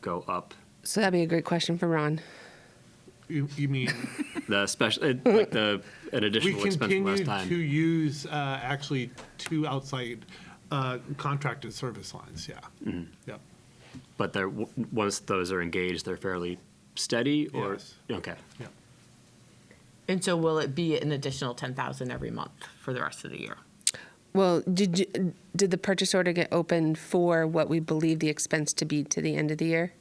go up So that'd be a great question for Ron. You, you mean, the special, it- like the, an we additional expense from last continue to time. use, uh, actually, two outside uh, contracted service lines, yeah. Mm-hmm. Yep. But they're, w- once those are engaged, they're fairly steady or? Yes. Okay. Yeah. And so will it be an additional ten thousand every month for the rest of the year? Well, did you, did the purchase order get open for what we believe the expense to be to the end of the year?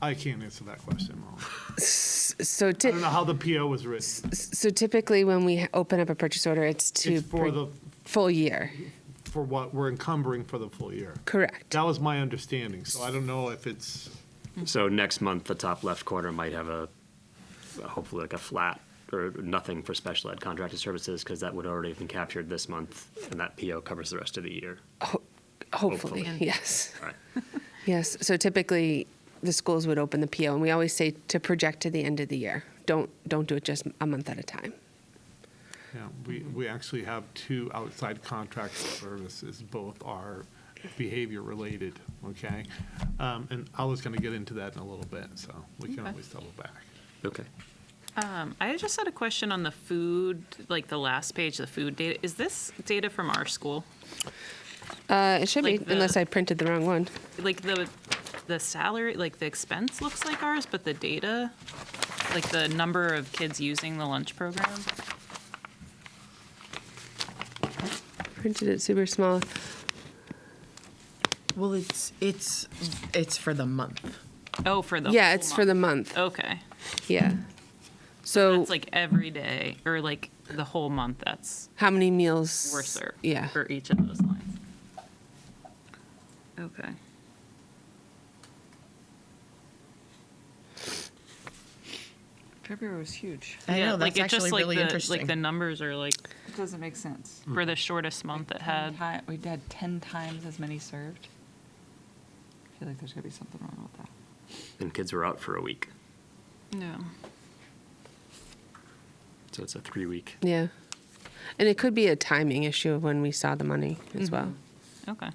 I can't answer that question, Molly. So, I don't know ty- how the PO was written. so typically when we open up a purchase order, it's to It's for pur- the, full year. for what we're encumbering for the full year. Correct. That was my understanding, so I don't know if it's, So next month, the top left corner might have a, hopefully like a flat or nothing for special ed contracted services because that would already have been captured this month and that PO covers the rest of the year. Hopefully, Hopefully. yes, All right. yes. So typically, the schools would open the PO, and we always say to project to the end of the year. Don't don't do it just a month at a time. you know, we, we actually have two outside contracted services. Both are behavior-related, okay? Um, And I was going to get into that in a little bit, so we can Okay. always double back. Okay. Um, I just had a question on the food, like the last page, the food data. Is this data from our school? Uh, it should Like be, the- unless I printed the wrong one. Like the, the salary, like the expense looks like ours, but the data, like the number of kids using the lunch program? Printed it super small. Well, it's, it's, it's for the month. Oh, for the yeah, whole it's for the month. Okay. Yeah. So It's like every day, or like the whole month that's how many meals worse served. Yeah. For each of those lines. Okay. February was huge. I Yeah, know, like that's it just actually like really the- interesting. Like the numbers are like, It doesn't make sense. for the shortest month it had. Ti- We had 10 times as many served. I feel like there's going to be something wrong with that. And kids were out for a week. Mm. No. So it's a three week. Yeah. And it could be a timing issue of when we saw the money as well. Okay.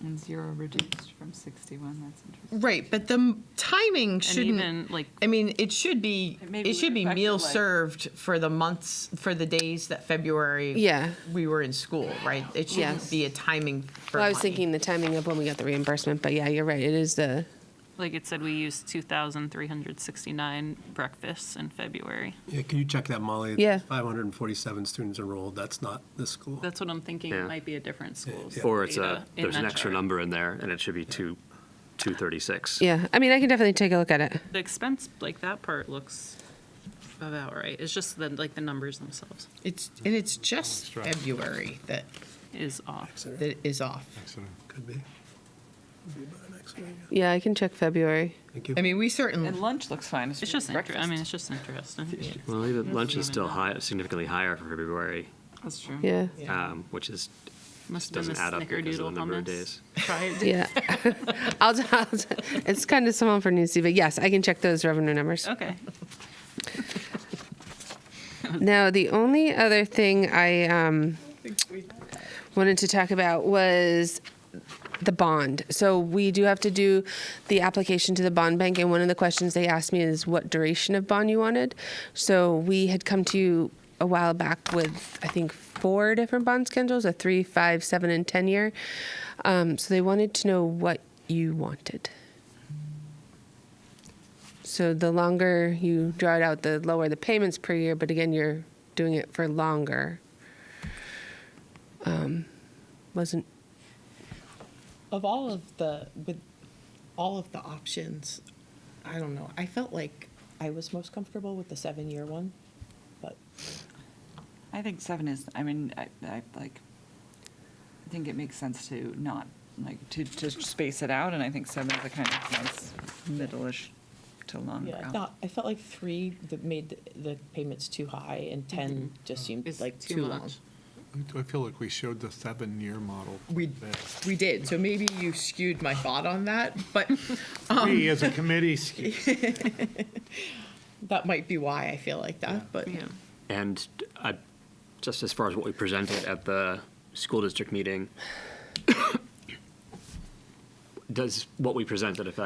And zero reduced from 61, that's interesting. Right, but the m- timing shouldn't. even, like- I mean, it should be. It may be It should be affected, meal like- served for the months for the days that February. Yeah. We were in school, right? It shouldn't Yes. be a timing. For Well, I was money. thinking the timing of when we got the reimbursement, but yeah, you're right. It is the Like it said, we used 2,369 breakfasts in February. Yeah, can you check that, Molly? Yeah. 547 students enrolled, that's not this school. That's what I'm thinking. Yeah. It might be a different school's. Or it's data a, in there's an that extra chart. number in there and it should be two, 236. yeah. I mean, I can definitely take a look at it. The expense, like that part looks about right. It's just the, like the numbers themselves It's and it's just right. February that is off. that is off. Could be. Could be about an extra, yeah. Yeah, I can check February. Thank you. I mean, we certainly. And lunch looks fine. Mm-hmm. It's really just, inter- I breakfast. mean, it's just interesting. Well, even lunch is even still know. high, significantly higher for February, That's true. Yeah. um, which is, Must have been doesn't the add up because of the snickerdoodle number of hummus. days. Yeah. I'll, I'll, it's kind of small for Newsy, but yes, I can check those revenue numbers. Okay. Now, the only other thing I um, wanted to talk about was the bond. So we do have to do the application to the bond bank, and one of the questions they asked me is what duration of bond you wanted. So we had come to you a while back with I think four different bond schedules: a three, five, seven, and ten year. Um, so they wanted to know what you wanted. So the longer you draw it out, the lower the payments per year. But again, you're doing it for longer. Um, wasn't of all of the with all of the options i don't know i felt like i was most comfortable with the seven year one but I think seven is, I mean, I, I like, I think it makes sense to not, like, to, to space it out, and I think seven is a kind of nice middle-ish to longer yeah out. not, i felt like three that made the, the payments too high and 10 just seemed It's like too Mm-hmm. too, long much. I feel like we showed the seven-year model. we there. we did so maybe you skewed my thought on that but We, as a committee, that might be why i feel like that but Yeah. And I, just as far as what we presented at the school district meeting, does what we presented affect